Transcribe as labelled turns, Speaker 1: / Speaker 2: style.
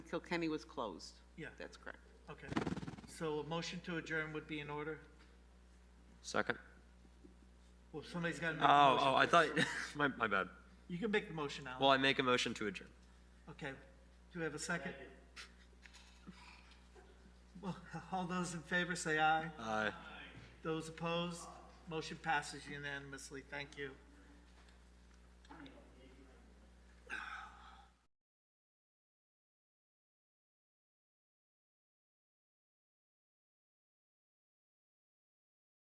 Speaker 1: Kilkenny was closed.
Speaker 2: Yeah,
Speaker 1: That's correct.
Speaker 2: okay. So a motion to adjourn would be in order?
Speaker 3: Second.
Speaker 2: Well, somebody's got to make the
Speaker 3: Oh,
Speaker 2: motion.
Speaker 3: oh, I thought, my, my bad.
Speaker 2: You can make the motion, Alan.
Speaker 3: Well, I make a motion to adjourn.
Speaker 2: Okay, do we have a second? Well, all those in favor say aye.
Speaker 3: Aye.
Speaker 2: Those opposed, motion passes unanimously. Thank you.